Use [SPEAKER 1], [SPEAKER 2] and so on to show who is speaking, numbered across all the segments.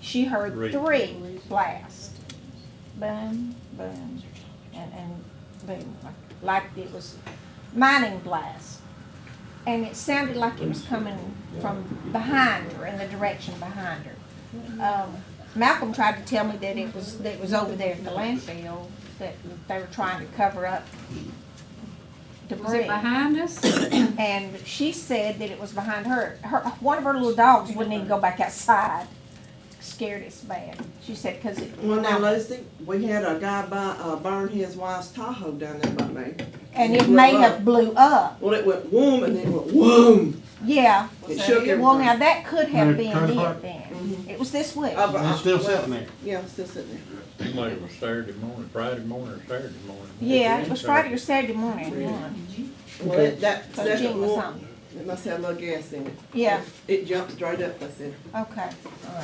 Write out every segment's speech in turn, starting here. [SPEAKER 1] She heard
[SPEAKER 2] Three.
[SPEAKER 1] three blast. Boom, boom, and, and boom, like it was mining blast. And it sounded like it was coming from behind her, in the direction behind her. Um, Malcolm tried to tell me that it was, that it was over there at the landfill, that they were trying to cover up debris.
[SPEAKER 3] Was it behind us?
[SPEAKER 1] And she said that it was behind her. Her, one of her little dogs wouldn't even go back outside. Scared it's bad. She said, cause it.
[SPEAKER 4] Well, now Lucy, we had a guy buy, uh, burn his wife's Tahoe down there by me.
[SPEAKER 1] And it may have blew up.
[SPEAKER 4] Well, it went whoom and then it went whoom.
[SPEAKER 1] Yeah.
[SPEAKER 4] It shook everything.
[SPEAKER 1] Well, now that could have
[SPEAKER 5] Mary
[SPEAKER 1] been
[SPEAKER 5] Kern
[SPEAKER 1] it
[SPEAKER 5] Park?
[SPEAKER 1] then. It was this week.
[SPEAKER 4] Uh, but
[SPEAKER 5] And
[SPEAKER 4] I-
[SPEAKER 5] it's still
[SPEAKER 4] well,
[SPEAKER 5] sitting there.
[SPEAKER 4] Yeah, it's still sitting there.
[SPEAKER 2] Like it was Saturday morning, Friday morning or Saturday morning.
[SPEAKER 1] Yeah, it was Friday or Saturday morning, one.
[SPEAKER 4] Well, it- that
[SPEAKER 1] So Jean
[SPEAKER 4] second
[SPEAKER 1] was
[SPEAKER 4] one,
[SPEAKER 1] on.
[SPEAKER 4] it must have a little gas in it.
[SPEAKER 1] Yeah,
[SPEAKER 4] It jumped straight up, I said.
[SPEAKER 1] okay.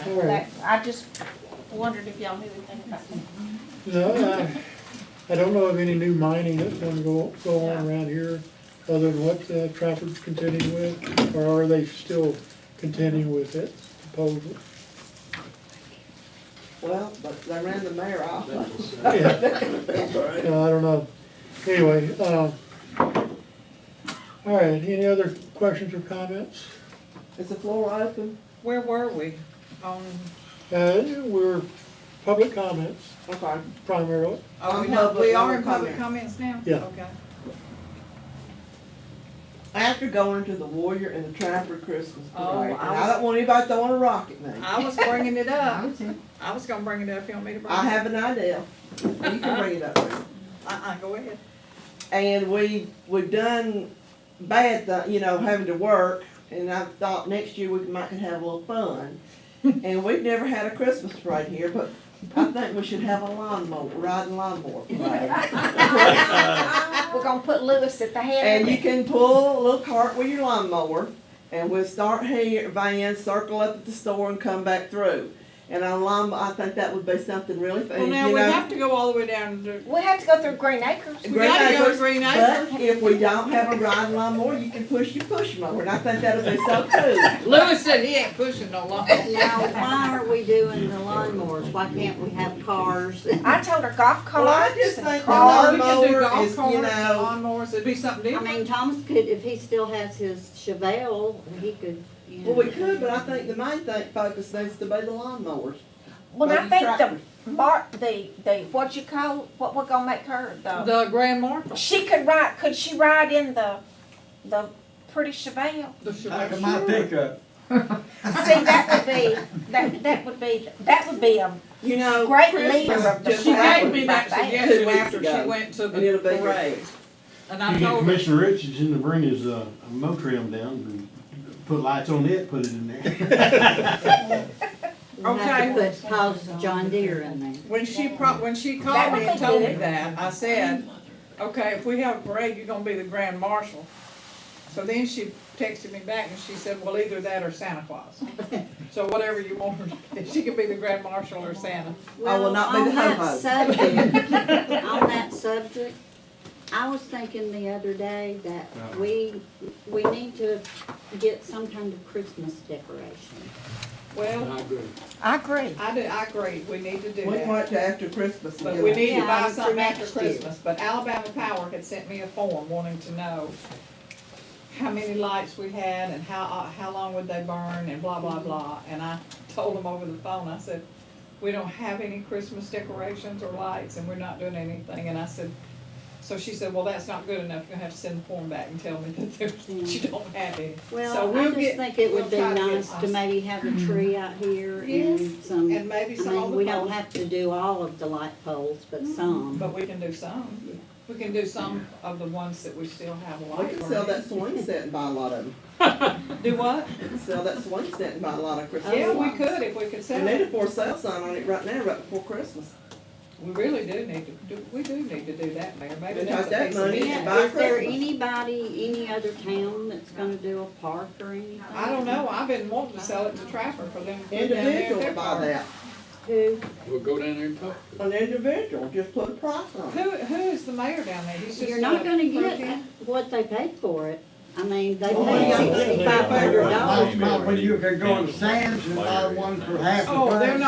[SPEAKER 1] All right. That- I just wondered if y'all knew anything about that.
[SPEAKER 5] No, I, I don't know of any new mining that's gonna go, go on around here, other than what uh, Trafford's contending with, or are they still contending with it supposedly?
[SPEAKER 4] Well, but they ran the mayor off.
[SPEAKER 5] Yeah, No, Uh, I don't know. Anyway, uh, all right, any other questions or comments?
[SPEAKER 4] Is the floor open?
[SPEAKER 6] Where were we on,
[SPEAKER 5] Uh, we're public comments
[SPEAKER 4] Okay.
[SPEAKER 5] primarily.
[SPEAKER 6] oh,
[SPEAKER 4] On
[SPEAKER 6] we not,
[SPEAKER 4] public,
[SPEAKER 6] we are
[SPEAKER 4] no
[SPEAKER 6] in public
[SPEAKER 4] comments.
[SPEAKER 6] comments now?
[SPEAKER 5] Yeah.
[SPEAKER 6] Okay.
[SPEAKER 4] After going to the Warrior and the Trapper Christmas
[SPEAKER 6] Oh,
[SPEAKER 4] parade, and
[SPEAKER 6] I
[SPEAKER 4] I
[SPEAKER 6] was-
[SPEAKER 4] don't want anybody throwing a rock at me.
[SPEAKER 6] I was bringing it up. I was gonna bring it up, you want me to bring it up?
[SPEAKER 4] I have an idea. You can bring it up there.
[SPEAKER 6] Uh-uh, go
[SPEAKER 4] Uh,
[SPEAKER 6] ahead.
[SPEAKER 4] And we, we've done bad, th- you know, having to work, and I thought next year we might could have a little fun. And we've never had a Christmas parade here, but I think we should have a lawnmower, riding lawnmower parade.
[SPEAKER 1] We're gonna put Lewis at the head
[SPEAKER 4] And
[SPEAKER 1] of
[SPEAKER 4] you
[SPEAKER 1] it.
[SPEAKER 4] can pull a little cart with your lawnmower, and we'll start here, van, circle up at the store and come back through. And a lawn, I think that would be something really fun,
[SPEAKER 6] Well,
[SPEAKER 4] you
[SPEAKER 6] now, we
[SPEAKER 4] know.
[SPEAKER 6] have to go all the way down to,
[SPEAKER 1] We had to go through Green Acres.
[SPEAKER 6] we gotta go to Green Acres.
[SPEAKER 4] But if we don't have a riding lawnmower, you can push your push mower, and I think that'll be so cool.
[SPEAKER 6] Lewis said he ain't pushing no longer.
[SPEAKER 7] Now, why are we doing the lawnmowers? Why can't we have cars? I
[SPEAKER 1] I told her golf
[SPEAKER 4] Well, I
[SPEAKER 1] carts
[SPEAKER 4] just
[SPEAKER 1] and
[SPEAKER 4] think the
[SPEAKER 1] cars.
[SPEAKER 6] We can do
[SPEAKER 4] lawnmower
[SPEAKER 6] golf
[SPEAKER 4] is, you
[SPEAKER 6] carts, and
[SPEAKER 4] know-
[SPEAKER 6] lawnmowers, it'd be something different.
[SPEAKER 7] mean, Thomas could, if he still has his Chevelle, he could, you know.
[SPEAKER 4] Well, we could, but I think the main thing focus needs to be the lawnmowers.
[SPEAKER 1] Well, I
[SPEAKER 4] Maybe
[SPEAKER 1] think
[SPEAKER 4] tractor.
[SPEAKER 1] the mark, the, the, what you call, what we're gonna make her,
[SPEAKER 4] uh,
[SPEAKER 1] the,
[SPEAKER 6] The Grand Marshal,
[SPEAKER 1] she could ride, could she ride in the, the pretty Chevelle?
[SPEAKER 4] uh,
[SPEAKER 6] the
[SPEAKER 8] Back
[SPEAKER 6] Chevelle.
[SPEAKER 8] of my pickup.
[SPEAKER 1] See, that would be, that, that would be, that would be a
[SPEAKER 4] You know,
[SPEAKER 1] great
[SPEAKER 4] Christmas
[SPEAKER 1] leader of the
[SPEAKER 4] just
[SPEAKER 6] She gave
[SPEAKER 4] happened,
[SPEAKER 6] me that
[SPEAKER 1] Back there.
[SPEAKER 6] suggestion
[SPEAKER 4] Two weeks
[SPEAKER 6] after she
[SPEAKER 4] ago.
[SPEAKER 6] went to
[SPEAKER 4] and it'll
[SPEAKER 6] the
[SPEAKER 4] be
[SPEAKER 6] parade,
[SPEAKER 4] great.
[SPEAKER 6] and
[SPEAKER 5] You
[SPEAKER 6] I
[SPEAKER 5] get
[SPEAKER 6] told her.
[SPEAKER 5] Commissioner Richardson to bring his, uh, Motrim down and put lights on it, put it in there.
[SPEAKER 7] We'll have
[SPEAKER 6] okay.
[SPEAKER 7] to put Paul's John Deere in there.
[SPEAKER 6] When she pro, when she
[SPEAKER 1] That
[SPEAKER 6] called
[SPEAKER 1] would
[SPEAKER 6] me and
[SPEAKER 1] be
[SPEAKER 6] told me
[SPEAKER 1] good.
[SPEAKER 6] that, I said, okay, if we have a parade, you're gonna be the grand marshal. So then she texted me back and she said, well, either that or Santa Claus. So whatever you want her to be, she could be the grand marshal or Santa.
[SPEAKER 4] I will not be
[SPEAKER 7] Well,
[SPEAKER 4] the
[SPEAKER 7] on that
[SPEAKER 4] ho-ho.
[SPEAKER 7] subject- On that subject, I was thinking the other day that we, we need to get some kind of Christmas decoration.
[SPEAKER 6] Well,
[SPEAKER 1] I agree.
[SPEAKER 6] I do, I agree, we need to do
[SPEAKER 4] We
[SPEAKER 6] that.
[SPEAKER 4] want to after Christmas.
[SPEAKER 6] But
[SPEAKER 4] do
[SPEAKER 6] we
[SPEAKER 4] it.
[SPEAKER 6] need to
[SPEAKER 7] Yeah,
[SPEAKER 6] buy
[SPEAKER 7] for
[SPEAKER 6] something after
[SPEAKER 7] next year.
[SPEAKER 6] Christmas, but Alabama Power had sent me a form wanting to know how many lights we had and how, uh, how long would they burn and blah, blah, blah. And I told them over the phone, I said, we don't have any Christmas decorations or lights and we're not doing anything. And I said, so she said, well, that's not good enough, you'll have to send the form back and tell me that there's, you don't have any. So
[SPEAKER 7] Hmm. Well, I
[SPEAKER 6] we'll
[SPEAKER 7] just
[SPEAKER 6] get-
[SPEAKER 7] think it would
[SPEAKER 6] we'll
[SPEAKER 7] be
[SPEAKER 6] try to get
[SPEAKER 7] nice to
[SPEAKER 6] us-
[SPEAKER 7] maybe have a tree out here and
[SPEAKER 6] Yes,
[SPEAKER 7] some.
[SPEAKER 6] And maybe
[SPEAKER 7] I
[SPEAKER 6] some of
[SPEAKER 7] mean,
[SPEAKER 6] the. Mm-hmm.
[SPEAKER 7] we don't
[SPEAKER 6] poles.
[SPEAKER 7] have to do all of the light poles, but some.
[SPEAKER 6] But we can do some. We can do some of the ones that we still have a
[SPEAKER 4] We
[SPEAKER 6] light
[SPEAKER 4] can
[SPEAKER 6] for.
[SPEAKER 4] sell that swing set and buy a lot of them.
[SPEAKER 6] Do what?
[SPEAKER 4] We can Sell that swing set and buy a lot of Christmas
[SPEAKER 6] Yeah, we
[SPEAKER 4] lights.
[SPEAKER 6] could if we could
[SPEAKER 4] We
[SPEAKER 6] sell
[SPEAKER 4] need
[SPEAKER 6] it.
[SPEAKER 4] a for sale sign on it right now, right before Christmas.
[SPEAKER 6] We really do need to, do. we do need to do that, Mayor. Maybe
[SPEAKER 4] Then
[SPEAKER 6] that's
[SPEAKER 4] take that
[SPEAKER 6] a piece
[SPEAKER 4] money
[SPEAKER 6] of
[SPEAKER 4] and
[SPEAKER 6] it.
[SPEAKER 4] buy-
[SPEAKER 7] Is there
[SPEAKER 4] Christmas.
[SPEAKER 7] anybody, any other town that's gonna do a park or anything?
[SPEAKER 6] I don't know. I've been wanting to sell it to Trapper for them. to put down there at
[SPEAKER 4] Individual
[SPEAKER 6] their
[SPEAKER 4] buy
[SPEAKER 6] park.
[SPEAKER 4] that.
[SPEAKER 7] Who?
[SPEAKER 2] We'll go down there and talk.
[SPEAKER 4] An individual, just put a price on it.
[SPEAKER 6] Who, who is the mayor down there? He's just.
[SPEAKER 7] You're not gonna
[SPEAKER 6] approved
[SPEAKER 7] get
[SPEAKER 6] him?
[SPEAKER 7] what they paid for it. I mean, they
[SPEAKER 4] Well, we
[SPEAKER 7] paid
[SPEAKER 4] got
[SPEAKER 7] sixty-five hundred
[SPEAKER 2] $6,500.
[SPEAKER 7] dollars.
[SPEAKER 8] Last night, when you could go to Sam's and buy one for half the price.
[SPEAKER 6] Oh, they're not